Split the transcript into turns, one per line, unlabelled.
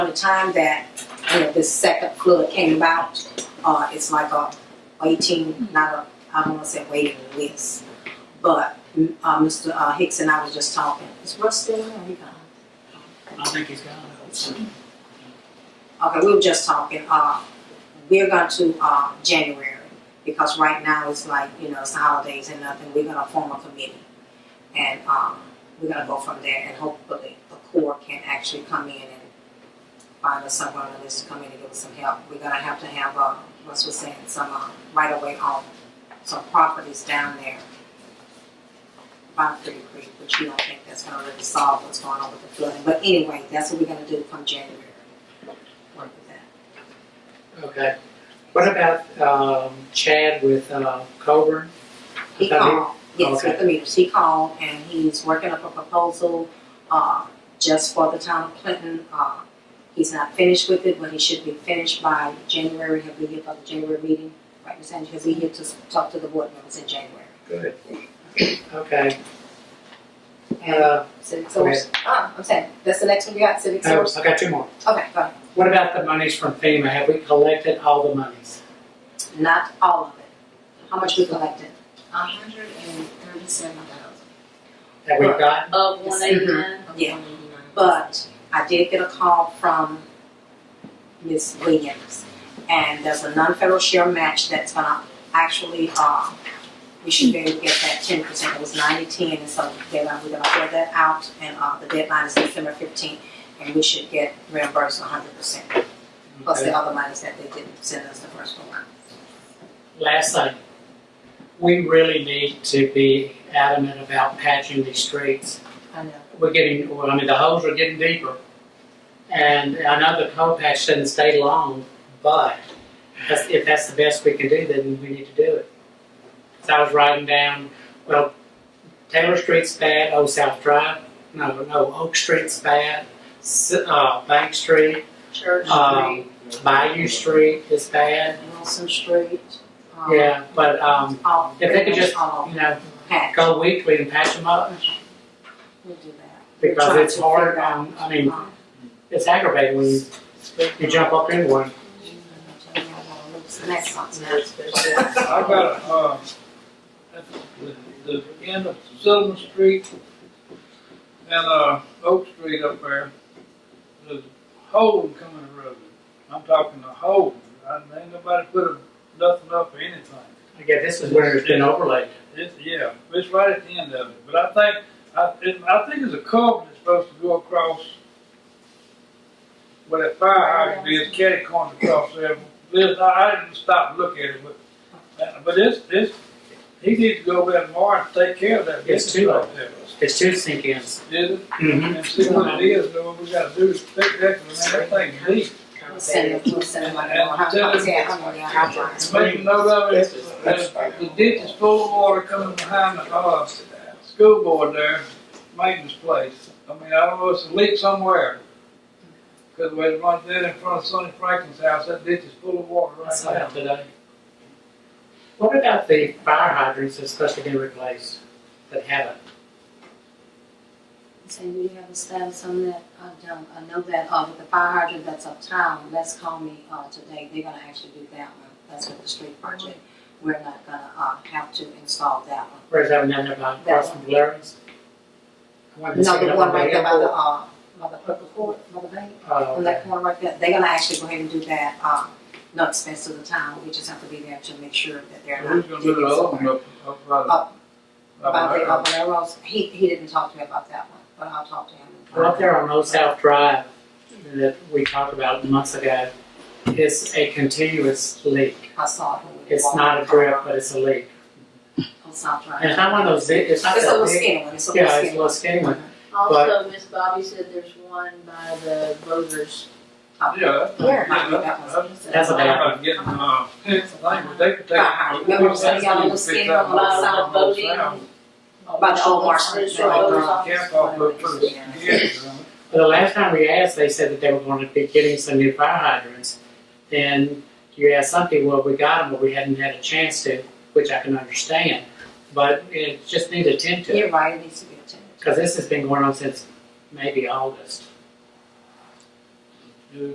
By the time that, you know, this second flood came about, uh, it's like a waiting, not a, I don't wanna say waiting list. But, mm, uh, Mr. uh, Hicks and I was just talking, is Russ still there? Are you gone?
I think he's gone.
Okay, we were just talking, uh, we're going to, uh, January, because right now it's like, you know, it's the holidays and nothing, we're gonna form a committee. And, um, we're gonna go from there and hopefully the Corps can actually come in and find us someone on this committee, give us some help. We're gonna have to have, uh, what's was saying, some, uh, right away on some properties down there. By Pretty Creek, which you don't think that's gonna really solve what's going on with the flooding, but anyway, that's what we're gonna do come January, work with that.
Okay. What about um, Chad with uh, Coburn?
He
With the meter?
called, yes, with the meters, he called and he's working up a proposal, uh, just for the town of Clinton, uh, he's not finished with it, but he should be finished by January, he'll be here for the January meeting, right, Ms. Angie, he'll be here to s- talk to the board members in January.
Good. Okay.
And
Uh,
civic source, ah, I'm saying, that's the next one you got, civic
oh,
source,
I got two more.
okay, go ahead.
What about the monies from FEMA? Have we collected all the monies?
not all of it, how much we collected?
A hundred and thirty-seven thousand.
That we've gotten?
Of one eighty-nine?
Yeah. But I did get a call from Ms. Williams, and there's a non-federal share match that's gonna actually, uh, we should be able to get that ten percent, it was ninety-ten, and so they're gonna, we're gonna fill that out, and, uh, the deadline is December fifteenth, and we should get reimbursed hundred percent, plus the
Okay.
other monies that they didn't send us the first one.
Last thing. We really need to be adamant about patching these streets.
I know.
we're getting, well, I mean, the holes are getting deeper. And I know the coal patch doesn't stay long, but that's, if that's the best we can do, then we need to do it. So I was writing down, well, Taylor Street's bad, Old South Drive, no, no, Oak Street's bad, S- uh, Bank Street,
Church
um, Bayou Street is bad,
Wilson Street, um,
yeah, but, um,
all-
if they could just,
all
you know,
packed.
go weekly and patch them up,
We'll do that.
because it's hard, um, I mean,
Um,
it's aggravating when you, you jump up into one.
Next month.
I got, uh, at the, the end of Sullivan Street and, uh, Oak Street up there, there's a hole coming the road. I'm talking a hole, I, ain't nobody put a, nothing up or anything.
Again, this is where it's been overlaid.
It's, yeah, it's right at the end of it, but I think, I, it, I think it's a curb that's supposed to go across where that firehouse is, catty corner across there. Liz, I, I didn't stop and look at it, but, uh, but it's, it's, he needs to go over there tomorrow and take care of that.
It's
business
too
right
low.
there.
It's two sink ins.
Is it?
Mm-hmm.
And see what it is, and what we gotta do is fix that, and that thing deep.
We'll send them, we'll send them out.
Make a note of it, the the ditch is full of water coming behind the, uh, school board there, maintenance place. I mean, I don't know, it's a leak somewhere. Cause when it runs in in front of Sonny Franklin's house, that ditch is full of water right
That's
now.
not today. What about the fire hydrants that's supposed to be replaced that haven't?
Say, we have a status on that, I don't, I know that, uh, with the fire hydrant that's uptown, let's call me, uh, today, they're gonna actually do that one, that's with the street project. We're not gonna, uh, have to install that one.
Where's that one down there by across from Larry's? I wanted to see
No, the
that
one right there by the,
airport.
uh, by the purple court, by the bank.
Oh,
on
okay.
that corner right there, they're gonna actually go ahead and do that, uh, no expense to the town, we just have to be there to make sure that they're not.
Who's gonna do the other one up, up by the-
Up
up
About the,
there?
about the railroads, he, he didn't talk to me about that one, but I'll talk to him.
Well, Up there on Old South Drive that we talked about months ago, it's a continuous leak.
I saw it. when we
It's
walked
not a drip, but it's a leak.
On South Drive.
And it's not one of those, big- it's not
It's a
that
little
big.
skinny one, it's a little
Yeah, it's a
skinny.
little skinny one.
Also, Miss Bobby said there's one by the voters.
Oh,
Yeah. that's-
Where?
yeah,
That was-
That's a bad
I'm getting, uh, it's like, they could take.
Uh-huh. Remember when y'all was skinny on the
side of the
Sound.
By the old Marston.
It's
They
your voters
could
office.
Cap off, but put a
Yeah.
skid on it.
But the last time we asked, they said that they were going to be getting some new fire hydrants. Then you asked some people, well, we got them, but we hadn't had a chance to, which I can understand. But it just needs attention,
You're right, it needs to be attended.
because this has been going on since maybe August.